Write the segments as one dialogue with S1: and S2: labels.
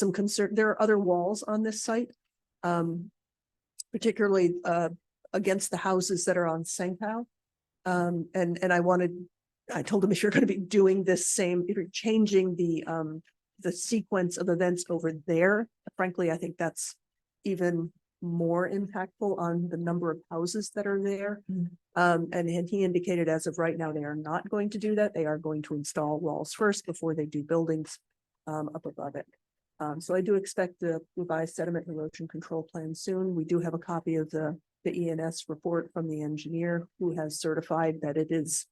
S1: some concern, there are other walls on this site. Um, particularly, uh, against the houses that are on Sangpao. Um, and, and I wanted, I told him if you're gonna be doing this same, if you're changing the, um, the sequence of events over there, frankly, I think that's even more impactful on the number of houses that are there.
S2: Mm.
S1: Um, and and he indicated as of right now, they are not going to do that. They are going to install walls first before they do buildings um, up above it. Um, so I do expect the revised sediment and erosion control plan soon. We do have a copy of the, the ENS report from the engineer who has certified that it is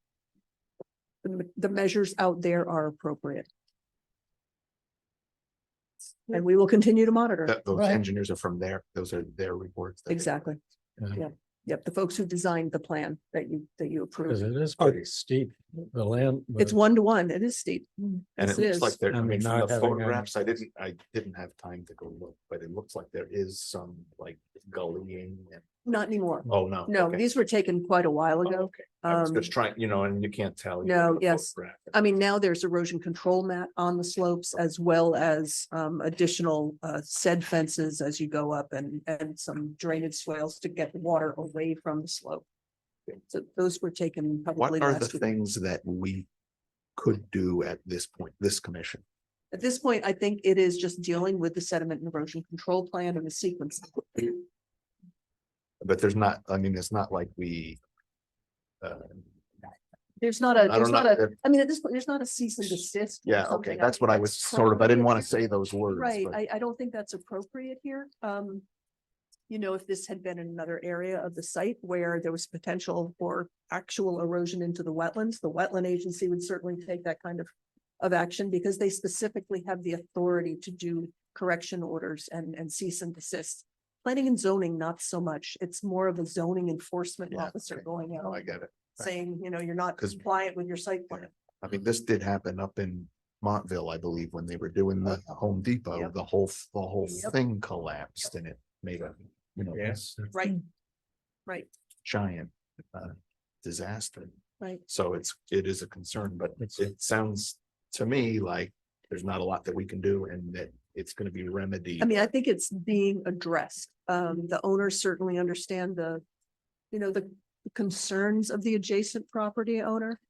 S1: the, me- the measures out there are appropriate. And we will continue to monitor.
S3: That those
S2: Right.
S3: engineers are from there. Those are their reports. that they-
S1: Exactly.
S4: Yeah.
S1: Yep. Yep. The folks who designed the plan that you, that you
S4: Cause
S1: approved.
S4: it is pretty steep, the land.
S1: It's
S4: but
S1: one to one. It is steep.
S3: Mm. And
S1: Yes,
S3: it
S1: it
S3: looks
S1: is.
S3: like there,
S4: I
S3: I
S4: mean,
S3: mean, from
S4: not
S3: the
S4: having any-
S3: photographs, I didn't, I didn't have time to go look, but it looks like there is some like gullying and,
S1: Not anymore.
S3: oh, no.
S1: No,
S3: okay.
S1: these were taken quite a while
S3: Oh,
S1: ago.
S3: okay. I was
S1: Um,
S3: just trying, you know, and you can't tell. you
S1: no,
S3: know, the
S1: yes.
S3: photograph.
S1: I mean, now there's erosion control mat on the slopes as well as um additional uh said fences as you go up and and some drainage swales to get the water away from the slope. So those were taken probably
S3: What are the
S1: last week.
S3: things that we could do at this point, this commission?
S1: At this point, I think it is just dealing with the sediment and erosion control plan and the sequence.
S3: But there's not, I mean, it's not like we. uh,
S1: There's not a,
S3: I
S1: there's
S3: don't
S1: not
S3: know,
S1: a,
S3: that-
S1: I mean, at this point, there's not a cease and desist. or
S3: yeah,
S1: something.
S3: okay,
S1: I
S3: that's
S1: think
S3: what I was sort of, I didn't want to say those words.
S1: Right,
S3: but-
S1: I, I don't think that's appropriate here. Um, you know, if this had been in another area of the site where there was potential for actual erosion into the wetlands, the wetland agency would certainly take that kind of of action because they specifically have the authority to do correction orders and, and cease and desist. Planning and zoning, not so much. It's more of a zoning enforcement
S3: Yeah,
S1: officer
S3: okay.
S1: going
S3: No, I
S1: out,
S3: get it.
S1: saying, you know, you're not
S3: 'Cause-
S1: compliant with your site plan.
S3: I mean, this did happen up in Montville, I believe, when they were doing the Home Depot,
S1: Oh. Yep.
S3: the whole, the whole
S1: Yep.
S3: thing collapsed and it made a, you know,
S4: Yes.
S1: Right,
S2: Mm.
S1: right,
S3: giant uh, disaster.
S1: right.
S3: So it's, it is a concern, but
S4: It's-
S3: it sounds to me like there's not a lot that we can do and that it's gonna be remedied.
S1: I mean, I think it's being addressed. Um, the owners certainly understand the, you know, the concerns of the adjacent property owner.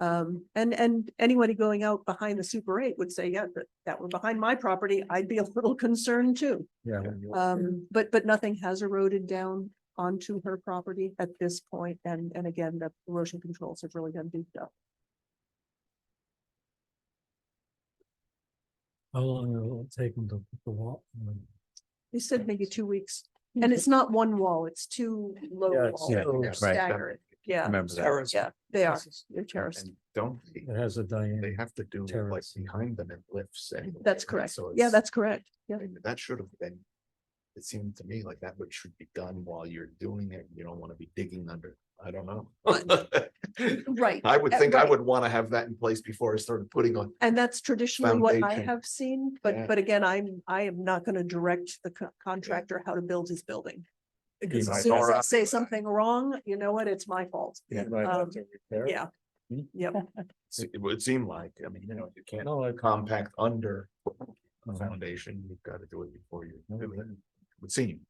S1: Um, and, and anybody going out behind the super eight would say, yeah, that, that were behind my property, I'd be a little concerned too.
S4: Yeah.
S1: Um, but, but nothing has eroded down onto her property at this point, And, and again, the erosion controls have really done beefed up.
S4: How long will it take them to put the wall?
S1: They said maybe two weeks. And it's not one wall, it's two low
S4: Yeah, it's-
S1: walls.
S4: yeah,
S1: They're
S4: right.
S1: Staggered, yeah,
S4: Remember
S1: yeah, they are, they're terraced.
S3: And Don't, they-
S4: It has a
S3: they
S4: diameter.
S3: have to do like
S4: Terrace.
S3: behind them in lifts. anyway,
S1: That's
S3: right?
S1: correct.
S3: So
S1: Yeah,
S3: it's-
S1: that's correct. Yeah.
S3: I mean, that should have been. It seemed to me like that would should be done while you're doing it. You don't want to be digging under, I don't know.
S1: Right.
S3: I would
S1: Uh,
S3: think I
S1: right.
S3: would want to have that in place before I started putting on.
S1: And that's traditionally what I
S3: Foundation.
S1: have seen, but,
S3: Yeah.
S1: but again, I'm, I am not gonna direct the co- contractor how to build his building. Because
S4: might
S1: as soon as I
S3: alright.
S1: say something wrong, you know what? It's my fault.
S4: Yeah.
S1: have to Yeah.
S4: Hmm.
S1: Yep.
S3: se- It would seem like, I mean, you know, you can't
S4: No, I
S3: compact under a
S4: Mhm.
S3: foundation. You've got to do it before you. do it, Would seem,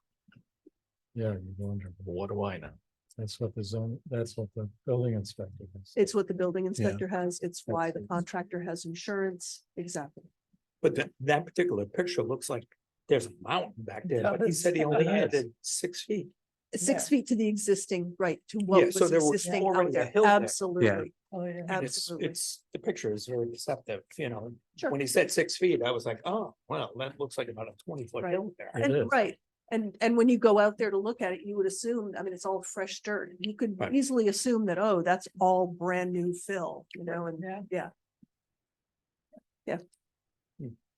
S4: yeah, you wonder,
S3: what do I know?
S4: that's what the zone, that's what the building inspector. is.
S1: It's what the building inspector has. It's why the
S4: Absolutely.
S1: contractor has insurance. Exactly.
S5: But that, that particular picture looks like there's a mountain back there,
S4: Yeah,
S5: but he
S4: that's-
S5: said he only
S4: that is.
S5: added six feet.
S1: Six feet to the existing, right, to what
S5: Yeah,
S1: was
S5: so there was
S1: existing out
S5: already a
S1: there.
S5: hill there. Yeah.
S1: Absolutely.
S2: Oh, yeah.
S5: And it's,
S1: Absolutely.
S5: it's, the picture is very deceptive, you know,
S1: Sure.
S5: when he said six feet, I was like, oh, well, that looks like about a twenty foot
S1: Right.
S5: hill there.
S4: It is.
S1: And right, and and when you go out there to look at it, you would assume, I mean, it's all fresh dirt. You could
S5: Right.
S1: easily assume that, oh, that's all brand new fill, you know, and
S2: Yeah.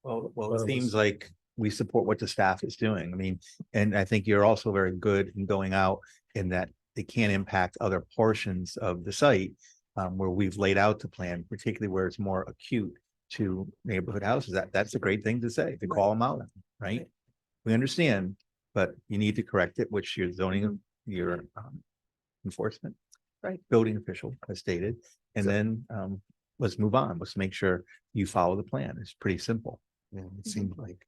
S6: Well, well,
S4: Well,
S6: it
S4: it was-
S6: seems like we support what the staff is doing. I mean, and I think you're also very good in going out in that it can impact other portions of the site um, where we've laid out the plan, particularly where it's more acute to neighborhood houses. That, that's a great thing to say, to call them out, right? We understand, but you need to correct it, which your zoning, your um, enforcement.
S1: Right.
S6: Building official has stated, and then um, let's move on. Let's make sure you follow the plan. It's pretty simple.
S3: You know, It seemed like